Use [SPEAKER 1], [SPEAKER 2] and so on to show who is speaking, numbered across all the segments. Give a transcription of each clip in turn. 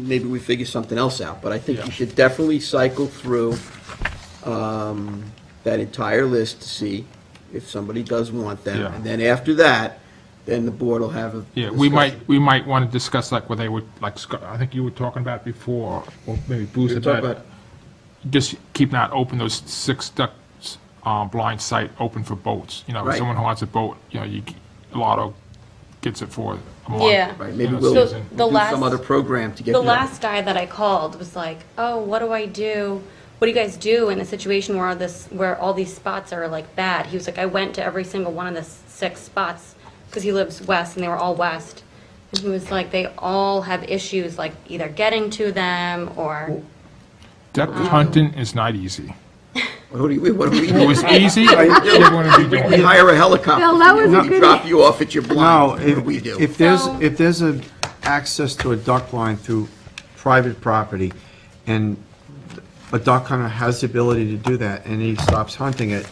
[SPEAKER 1] maybe we figure something else out, but I think
[SPEAKER 2] Yeah.
[SPEAKER 1] you should definitely cycle through um, that entire list to see if somebody does want them.
[SPEAKER 2] Yeah.
[SPEAKER 1] And then after that, then the board will have a
[SPEAKER 2] Yeah, we
[SPEAKER 1] discussion.
[SPEAKER 2] might, we might want to discuss like where they would, like, Scott- I think you were talking about before, or maybe Bruce
[SPEAKER 1] We'll talk
[SPEAKER 2] about,
[SPEAKER 1] about-
[SPEAKER 2] just keep not open those six ducts, uh, blind sight open for boats. You know, if
[SPEAKER 1] Right.
[SPEAKER 2] someone who wants a boat, you know, you, Lotto gets it for a month.
[SPEAKER 3] Yeah.
[SPEAKER 1] Right, maybe
[SPEAKER 2] you know,
[SPEAKER 1] we'll
[SPEAKER 3] So
[SPEAKER 1] we'll
[SPEAKER 2] season.
[SPEAKER 3] the
[SPEAKER 1] do some
[SPEAKER 3] last-
[SPEAKER 1] other program to get.
[SPEAKER 3] The
[SPEAKER 1] them.
[SPEAKER 3] last guy that I called was like, "Oh, what do I do? What do you guys do in a situation where this, where all these spots are like bad?" He was like, "I went to every single one of the s- six spots because he lives west, and they were all west." And he was like, "They all have issues, like either getting to them or."
[SPEAKER 2] Duck hunting is not easy.
[SPEAKER 1] What do we, what do we
[SPEAKER 2] If It was
[SPEAKER 1] do?
[SPEAKER 2] easy, everyone would be
[SPEAKER 1] We
[SPEAKER 2] doing it.
[SPEAKER 1] hire a helicopter.
[SPEAKER 4] Bill, that was a
[SPEAKER 1] We
[SPEAKER 4] good-
[SPEAKER 1] drop you off at your
[SPEAKER 4] No,
[SPEAKER 1] blind. What do
[SPEAKER 4] if,
[SPEAKER 1] we do?
[SPEAKER 4] if there's,
[SPEAKER 3] No.
[SPEAKER 4] if there's a access to a duck line through private property, and a duck hunter has the ability to do that, and he stops hunting it,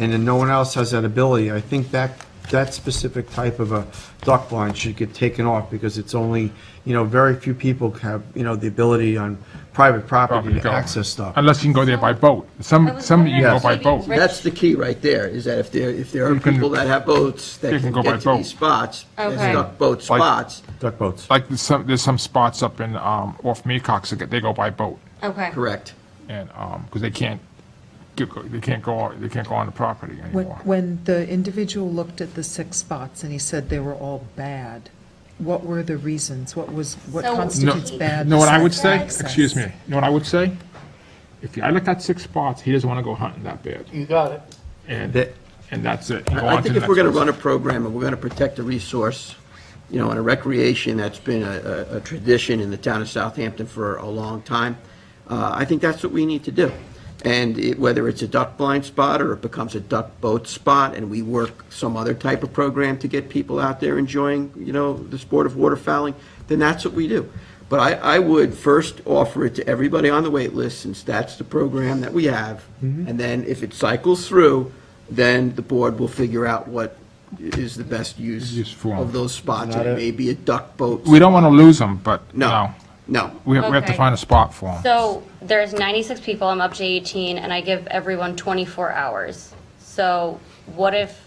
[SPEAKER 4] and then no one else has that ability, I think that, that specific type of a duck line should get taken off, because it's only, you know, very few people have, you know, the ability on private property
[SPEAKER 2] Probably
[SPEAKER 4] to
[SPEAKER 2] go.
[SPEAKER 4] access stuff.
[SPEAKER 2] Unless you can go there by boat.
[SPEAKER 3] I
[SPEAKER 2] Some,
[SPEAKER 3] was
[SPEAKER 2] some you can go
[SPEAKER 3] wondering
[SPEAKER 2] by
[SPEAKER 3] if
[SPEAKER 2] boat.
[SPEAKER 3] maybe-
[SPEAKER 1] That's the key right there, is that if there, if there are
[SPEAKER 2] You can-
[SPEAKER 1] people that have boats that
[SPEAKER 2] You
[SPEAKER 1] can
[SPEAKER 2] can go by
[SPEAKER 1] get to these
[SPEAKER 2] boat.
[SPEAKER 1] spots, and
[SPEAKER 3] Okay.
[SPEAKER 1] duck boat
[SPEAKER 2] Like-
[SPEAKER 1] spots,
[SPEAKER 4] Duck boats.
[SPEAKER 2] Like, there's some, there's some spots up in, um, off Mecox, that they go by boat.
[SPEAKER 3] Okay.
[SPEAKER 1] correct.
[SPEAKER 2] and, um 'cause because they can't, get- they can't go, they can't go on the property
[SPEAKER 5] When,
[SPEAKER 2] anymore.
[SPEAKER 5] when the individual looked at the six spots and he said they were all bad, what were the reasons? What was, what
[SPEAKER 3] So- No-
[SPEAKER 2] No,
[SPEAKER 5] constitutes bad?
[SPEAKER 2] know what I would say?
[SPEAKER 5] besides
[SPEAKER 2] Excuse me,
[SPEAKER 5] access?
[SPEAKER 2] you know what I would say? If I looked at six spots, he doesn't want to go hunting that bad,
[SPEAKER 6] You got it.
[SPEAKER 2] and,
[SPEAKER 4] That-
[SPEAKER 2] and that's it. You go
[SPEAKER 1] I
[SPEAKER 2] on
[SPEAKER 1] I
[SPEAKER 2] to
[SPEAKER 1] think
[SPEAKER 2] the
[SPEAKER 1] if we're
[SPEAKER 2] next
[SPEAKER 1] going to
[SPEAKER 2] person.
[SPEAKER 1] run a program and we're going to protect a resource, you know, and a recreation that's been a, a- a tradition in the town of Southampton for a long time, uh, I think that's what we need to do. And it- whether it's a duck blind spot or it becomes a duck boat spot and we work some other type of program to get people out there enjoying, you know, the sport of waterfowling, then that's what we do. But I, I would first offer it to everybody on the wait list, since that's the program that we have. And then if it cycles through, then the board will figure out what is the best
[SPEAKER 2] Use
[SPEAKER 1] use
[SPEAKER 2] form.
[SPEAKER 1] of those spots. And
[SPEAKER 4] Not
[SPEAKER 1] It
[SPEAKER 4] a-
[SPEAKER 1] may be a duck boat.
[SPEAKER 2] We don't want to lose them, but,
[SPEAKER 1] No,
[SPEAKER 2] no,
[SPEAKER 1] no.
[SPEAKER 2] we have, we have to
[SPEAKER 3] Okay.
[SPEAKER 2] find a spot for them.
[SPEAKER 3] So there's 96 people. I'm up to 18, and I give everyone 24 hours. So what if?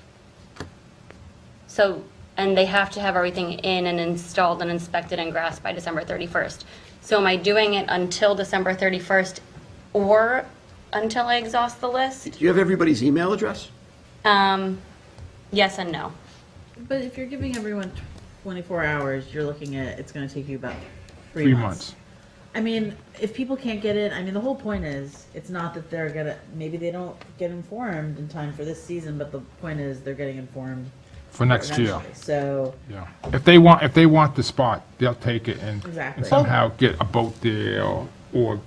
[SPEAKER 3] So and they have to have everything in and installed and inspected and grasped by December 31st. So am I doing it until December 31st, or until I exhaust the list?
[SPEAKER 1] Do you have everybody's email address?
[SPEAKER 3] Um, yes and no.
[SPEAKER 7] But if you're giving everyone 24 hours, you're looking at, it's gonna take you about three,
[SPEAKER 2] Three months.
[SPEAKER 7] I mean, if people can't get in, I mean, the whole point is, it's not that they're gonna, maybe they don't get informed in time for this season, but the point is, they're getting informed
[SPEAKER 2] for next year,
[SPEAKER 7] eventually. So,
[SPEAKER 2] yeah. If they want, if they want the spot, they'll take it and
[SPEAKER 7] Exactly.
[SPEAKER 2] and somehow get a boat there, or, or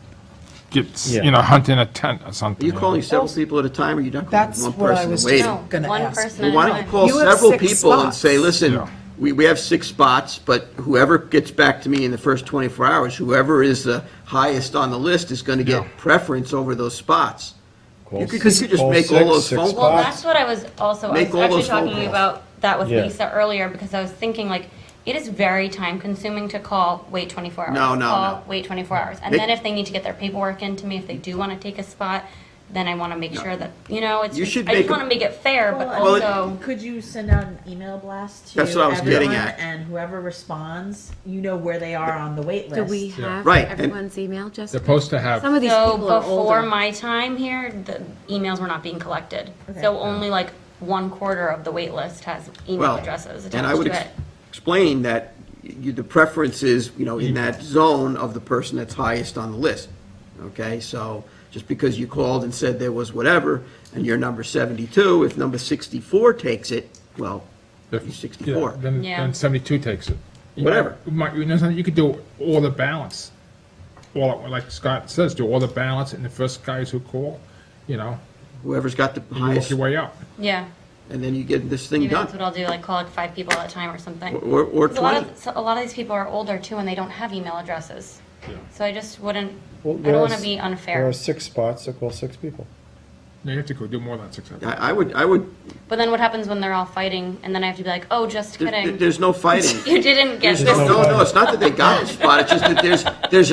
[SPEAKER 2] get, s-
[SPEAKER 4] Yeah.
[SPEAKER 2] you know, hunt in a tent or
[SPEAKER 1] Are
[SPEAKER 2] something.
[SPEAKER 1] you
[SPEAKER 2] know.
[SPEAKER 1] calling several people at a time, or are you not calling
[SPEAKER 5] Oh. That's
[SPEAKER 1] one
[SPEAKER 5] what I
[SPEAKER 1] person
[SPEAKER 5] was
[SPEAKER 1] and waiting?
[SPEAKER 5] just gonna
[SPEAKER 3] One
[SPEAKER 5] ask.
[SPEAKER 3] person
[SPEAKER 1] Well,
[SPEAKER 3] at
[SPEAKER 1] Why
[SPEAKER 3] a
[SPEAKER 1] don't
[SPEAKER 3] time.
[SPEAKER 1] you call
[SPEAKER 5] You have
[SPEAKER 1] several
[SPEAKER 5] six
[SPEAKER 1] people and say,
[SPEAKER 5] spots.
[SPEAKER 1] listen,
[SPEAKER 2] Yeah.
[SPEAKER 1] we, we have six spots, but whoever gets back to me in the first 24 hours, whoever is the highest on the list is going to
[SPEAKER 2] Yeah.
[SPEAKER 1] get preference over those spots. You could, you
[SPEAKER 5] six-
[SPEAKER 1] could just
[SPEAKER 4] call
[SPEAKER 1] make all
[SPEAKER 4] six,
[SPEAKER 1] those
[SPEAKER 4] six
[SPEAKER 1] phone
[SPEAKER 3] Well,
[SPEAKER 1] calls.
[SPEAKER 4] spots.
[SPEAKER 3] that's what I was also, I
[SPEAKER 1] Make
[SPEAKER 3] was
[SPEAKER 1] all
[SPEAKER 3] actually
[SPEAKER 1] those phone
[SPEAKER 3] talking
[SPEAKER 1] calls.
[SPEAKER 3] about that with
[SPEAKER 4] Yeah.
[SPEAKER 3] Lisa earlier, because I was thinking, like, it is very time consuming to call, wait 24 hours.
[SPEAKER 1] No, no,
[SPEAKER 3] call,
[SPEAKER 1] no.
[SPEAKER 3] Wait 24 hours. And
[SPEAKER 1] Make-
[SPEAKER 3] then if they need to get their paperwork into me, if they do want to take a spot, then I want to make sure that, you know, it's,
[SPEAKER 1] You
[SPEAKER 3] just-
[SPEAKER 1] should
[SPEAKER 3] I
[SPEAKER 1] make
[SPEAKER 3] just
[SPEAKER 1] a-
[SPEAKER 3] want to make it fair, but
[SPEAKER 7] Well,
[SPEAKER 1] it-
[SPEAKER 3] also,
[SPEAKER 7] could you send out an email blast to
[SPEAKER 1] That's what I was
[SPEAKER 7] everyone,
[SPEAKER 1] getting at.
[SPEAKER 7] and whoever responds, you know where they are on the wait list.
[SPEAKER 8] Do we have
[SPEAKER 1] Right, and-
[SPEAKER 8] everyone's email,
[SPEAKER 2] They're
[SPEAKER 8] Jessica?
[SPEAKER 2] supposed to have.
[SPEAKER 8] Some of these
[SPEAKER 3] so
[SPEAKER 8] people are
[SPEAKER 3] before
[SPEAKER 8] older.
[SPEAKER 3] my time here, the emails were not being collected.
[SPEAKER 7] Okay.
[SPEAKER 3] So only like one quarter of the wait list has email
[SPEAKER 1] Well,
[SPEAKER 3] addresses
[SPEAKER 1] and I
[SPEAKER 3] attached
[SPEAKER 1] would
[SPEAKER 3] to
[SPEAKER 1] ex-
[SPEAKER 3] it.
[SPEAKER 1] explain that you, the preference is, you know, in that zone of the person that's highest on the list, okay? So just because you called and said there was whatever, and you're number 72, if number 64 takes it, well, you're
[SPEAKER 2] Yeah,
[SPEAKER 1] 64.
[SPEAKER 2] Then,
[SPEAKER 3] Yeah.
[SPEAKER 2] then seventy-two takes it. You
[SPEAKER 1] Whatever.
[SPEAKER 2] know, Mike, you know, something, you could do all the balance, all, like Scott says, do all the balance, and the first guys who call, you know,
[SPEAKER 1] Whoever's got the
[SPEAKER 2] you work
[SPEAKER 1] highest,
[SPEAKER 2] your way up.
[SPEAKER 3] Yeah.
[SPEAKER 1] and then you get this thing
[SPEAKER 3] Maybe that's what
[SPEAKER 1] done.
[SPEAKER 3] I'll do, like call like five people at a time or something.
[SPEAKER 1] Or, or
[SPEAKER 3] Because A lot
[SPEAKER 1] 20.
[SPEAKER 3] of, so a lot of these people are older too, and they don't have email addresses. So I just wouldn't, I
[SPEAKER 4] Well,
[SPEAKER 3] don't want
[SPEAKER 4] there
[SPEAKER 3] to
[SPEAKER 4] are-
[SPEAKER 3] be
[SPEAKER 4] There
[SPEAKER 3] unfair.
[SPEAKER 4] are six spots, so call six people.
[SPEAKER 2] No, you have to go do more than six hours.
[SPEAKER 1] I, I would, I would,
[SPEAKER 3] But then what happens when they're all fighting and then I have to be like, oh, just
[SPEAKER 1] there-
[SPEAKER 3] kidding.
[SPEAKER 1] there's no fighting.
[SPEAKER 3] You didn't get
[SPEAKER 1] There's
[SPEAKER 3] this.
[SPEAKER 1] no, no, no, it's not that they got the spot, it's just that there's, there's